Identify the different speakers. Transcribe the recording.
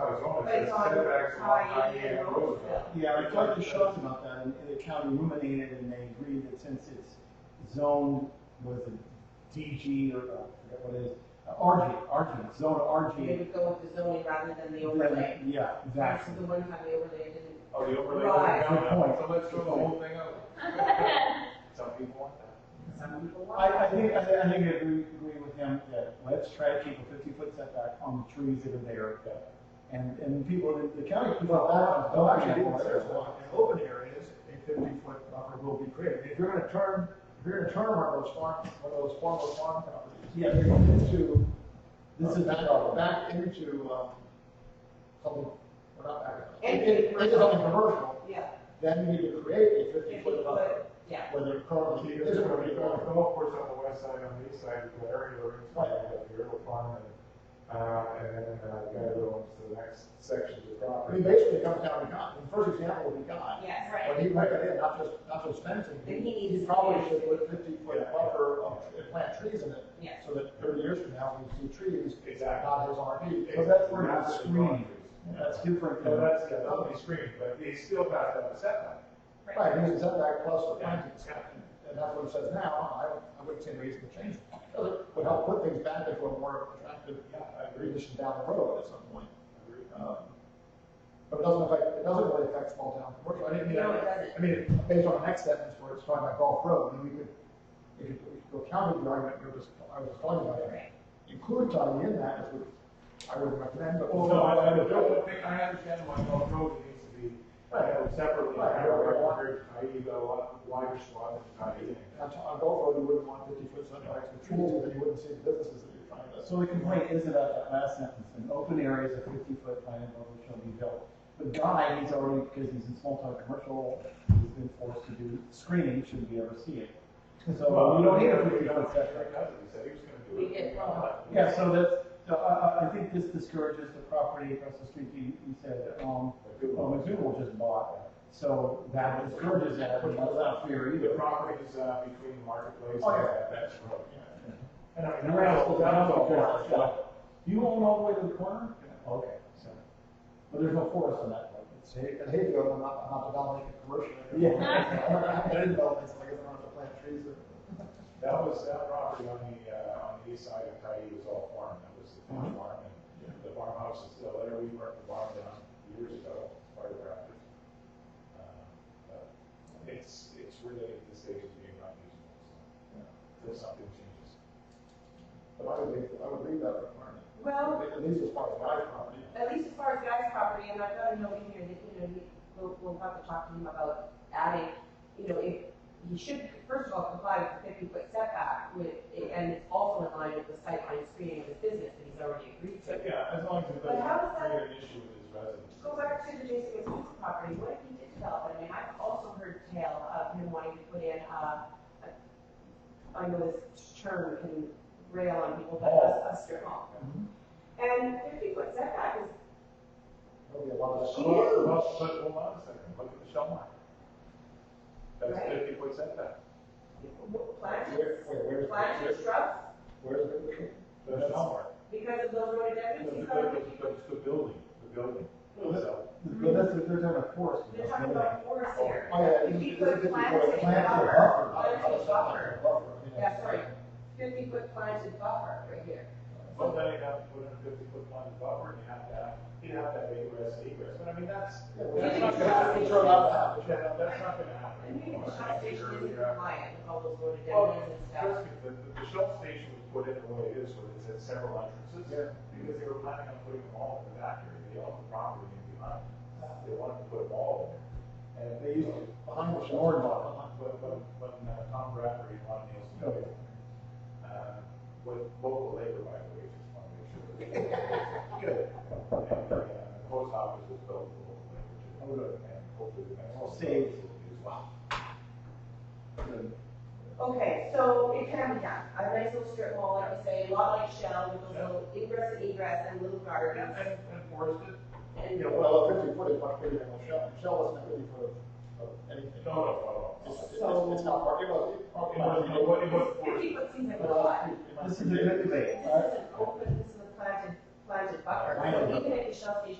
Speaker 1: zone, it
Speaker 2: But
Speaker 1: says
Speaker 2: it's on
Speaker 1: setbacks along
Speaker 2: High
Speaker 1: High
Speaker 2: Indian
Speaker 1: Indian
Speaker 2: Road.
Speaker 1: Roosevelt.
Speaker 3: Yeah, I talked to Shaw about that, and the county ruminated, and they agreed that since it's zoned, was a DG, or, uh, I forget what it is, uh, RG, RG, zone
Speaker 2: They
Speaker 3: RG.
Speaker 2: would go with the zoning rather than the overlay.
Speaker 3: then- Yeah,
Speaker 2: That's
Speaker 3: exactly.
Speaker 2: the one time the overlay didn't.
Speaker 1: Oh, the overlay.
Speaker 2: Right.
Speaker 1: down.
Speaker 3: Good point.
Speaker 1: So let's throw the whole thing out. Some people want that.
Speaker 2: Some people want.
Speaker 3: I, I think, I think, I think I agree, agree with him that let's try to keep a fifty-foot setback on the trees that are there. And, and people, the- the county people are
Speaker 4: Well,
Speaker 3: not,
Speaker 4: actually, I
Speaker 3: don't
Speaker 4: didn't say
Speaker 3: actually.
Speaker 4: it's long. in open areas, a fifty-foot buffer will be created. If you're gonna turn, if you're gonna turn one of those farm, one of those former farm properties.
Speaker 3: Yeah.
Speaker 4: You're going into,
Speaker 3: This is the
Speaker 4: back,
Speaker 3: problem.
Speaker 4: uh, back into, um, something, or not back into.
Speaker 2: And-
Speaker 4: Into into something commercial,
Speaker 2: Yeah,
Speaker 4: then you need to create a
Speaker 2: if
Speaker 4: fifty-foot
Speaker 2: you
Speaker 4: buffer,
Speaker 2: put, yeah.
Speaker 4: whether currently,
Speaker 1: There's
Speaker 4: this is
Speaker 1: gonna
Speaker 4: where
Speaker 1: be
Speaker 4: you
Speaker 1: a
Speaker 4: go.
Speaker 1: golf course on the west side, on the east side, the area where it's like the river farm and, uh, and then, uh, the guy that owns the next section of the
Speaker 4: I
Speaker 1: property.
Speaker 4: mean, basically, it comes down to God. The first example would be God.
Speaker 2: Yes,
Speaker 5: Right.
Speaker 4: When he went in, not just, not just fencing.
Speaker 2: Then he needs-
Speaker 4: Probably should put fifty-foot
Speaker 1: Yeah.
Speaker 4: buffer of, and plant trees in it.
Speaker 2: yes.
Speaker 4: so that thirty years from now, we see trees,
Speaker 1: Exactly.
Speaker 4: not as RV.
Speaker 3: But that's where it's
Speaker 1: Massive
Speaker 3: screened.
Speaker 1: properties.
Speaker 3: That's different
Speaker 1: So
Speaker 3: than.
Speaker 1: that's, yeah, that'll be screened, but it's still not that setback.
Speaker 4: Right, and it's setback plus the
Speaker 1: Yeah.
Speaker 4: plantings, and that's what it says now, I, don't- I wouldn't see any reason to change it.
Speaker 2: Oh.
Speaker 4: It Would help put things back into a more attractive
Speaker 1: Yeah, I agree.
Speaker 4: condition down the road at some point.
Speaker 1: Agreed.
Speaker 4: Um, But it doesn't affect, it doesn't really affect small town commercial, I didn't mean,
Speaker 2: No, it
Speaker 4: I
Speaker 2: doesn't.
Speaker 4: I mean, based on the next sentence where it's talking about golf road, I mean, we could, we could, we could go counter the argument you were just, I was just talking about.
Speaker 2: Right.
Speaker 4: Include tying in that, as we, I would recommend, but.
Speaker 1: Well, no, I, I don't think, I understand why Gulf Road needs to be, uh, separately, I don't remember, I, you got a lot uh, wider swath of not eating.
Speaker 4: On on Gulf Road, you wouldn't want fifty foot setbacks with trees, but then you wouldn't see the businesses that you're trying to.
Speaker 3: So the complaint is about that last sentence, in open areas of fifty foot planted buffer shall be built. But Guy, he's already, because he's in small town commercial, he's been forced to do screening, shouldn't be able to see it. So uh, we don't need a fifty foot setback.
Speaker 1: He said he was gonna do it.
Speaker 2: We did, well.
Speaker 3: Yeah, so that's, so I, I, I think this discourages the property across the street, you, you said, um, well, McDougal just bought. So that discourages that, which is not fair
Speaker 1: The
Speaker 3: either.
Speaker 1: property is, uh, between Marketplace
Speaker 4: Oh,
Speaker 1: and
Speaker 4: yeah.
Speaker 1: Bench Road. And I mean, the
Speaker 3: And
Speaker 1: rest,
Speaker 3: Randall,
Speaker 1: that was
Speaker 3: Randall,
Speaker 1: all part of
Speaker 3: yeah. You own all the way to the corner? Okay, so, but there's no forest on that part.
Speaker 4: See, at Hayfield, I'm not, I'm not developing a commercial.
Speaker 3: Yeah.
Speaker 4: I'm not having any developments, I guess I'm not gonna plant trees or.
Speaker 1: That was, that property on the, uh, on the east side of Tyee was all farm, that was the farm, farm, and the farmhouse is still there, we burnt the barn down years ago, fire raptors. Uh, but It's, it's really at this stage of being not usable, so, until something changes.
Speaker 4: But I would leave, I would leave that requirement.
Speaker 2: Well,
Speaker 4: At least as far as my property.
Speaker 2: at least as far as Guy's property, and I've got a note in here that, you know, he, we'll, we'll have to talk to him about adding, you know, if, he should, first of all, comply with the fifty foot setback with, and it's also in line with the sightline screening of his business that he's already agreed to.
Speaker 1: But yeah, as long as it
Speaker 2: But how
Speaker 1: doesn't
Speaker 2: does that-
Speaker 1: create an issue with his residence.
Speaker 2: Go back to the Jason Winston's property, what if he did develop it? I mean, I've also heard tale of him wanting to put in, uh, a- I know this term can rail on people, but a, a strip mall. And fifty foot setback is
Speaker 4: There'll be a lot of.
Speaker 2: She
Speaker 1: Well,
Speaker 2: is.
Speaker 1: well, But hold on a second, look at the shell line. That's
Speaker 2: Right.
Speaker 1: fifty foot setback.
Speaker 4: Where,
Speaker 2: planted,
Speaker 4: where, where's,
Speaker 2: planted
Speaker 4: where's,
Speaker 2: shrubs
Speaker 4: where's the tree?
Speaker 1: The shell mark.
Speaker 2: because of those
Speaker 1: The,
Speaker 2: rhododendrons,
Speaker 1: the,
Speaker 2: he's got,
Speaker 1: the- the- the building, the building.
Speaker 3: Well, that-
Speaker 1: So-
Speaker 3: But that's, they're talking about forest.
Speaker 2: they're talking about forest here.
Speaker 4: Oh, yeah.
Speaker 2: If he
Speaker 4: this is
Speaker 2: could
Speaker 4: 50 foot
Speaker 2: plant a
Speaker 4: plant or
Speaker 2: buffer,
Speaker 4: buffer.
Speaker 2: plant a buffer.
Speaker 4: Buffer, yeah.
Speaker 2: That's right, fifty foot planted buffer right here.
Speaker 1: Well, then you'd have to put in a fifty foot line buffer and you have to, have- you'd have to have egress, egress, but I mean, that's.
Speaker 4: Yeah,
Speaker 2: We
Speaker 1: that's
Speaker 2: can
Speaker 1: not gonna
Speaker 2: trust
Speaker 1: happen.
Speaker 2: it.
Speaker 4: Throw it out the house.
Speaker 1: That- That's not gonna happen.
Speaker 2: And maybe
Speaker 1: Or
Speaker 2: the shell station
Speaker 1: you're-
Speaker 2: isn't
Speaker 1: you're-
Speaker 2: compliant with all those
Speaker 1: Well,
Speaker 2: rhododendrons and stuff.
Speaker 1: trust me, the, the- the Shell station was put in the way it is, where it's at several entrances, because they were planning on putting them all in the back area, they own the property and behind. They wanted to put them all in there, and they used to,
Speaker 4: Behind the
Speaker 1: Or
Speaker 4: shore.
Speaker 1: not, when, when, when uh, Tom Bradbury and Ron Nielsen built it, uh, with local labor, by the way, just want to make sure. that- Good. And the uh, post office was built with local labor too.
Speaker 3: Oh, good.
Speaker 1: And hopefully the next. one
Speaker 3: Saved.
Speaker 1: will be as well.
Speaker 2: Okay, so it can be done, a nice little strip mall, like you say, a lot like Shell, with those little ingress and egress and little
Speaker 1: And,
Speaker 2: gardens,
Speaker 1: and and forested,
Speaker 2: and
Speaker 4: Yeah, well, a fifty foot is much bigger than a shell, a shell wasn't fifty foot of, of anything.
Speaker 1: no, no, no,
Speaker 4: It's,
Speaker 1: no.
Speaker 4: it's, it's not part, it was, it
Speaker 1: It wasn't, it wasn't, it wasn't forested.
Speaker 2: fifty foot seems like a lot.
Speaker 4: was.
Speaker 3: This is a good debate.
Speaker 2: This is an open, this is a planted, planted buffer,
Speaker 3: I know.
Speaker 2: even if the Shell station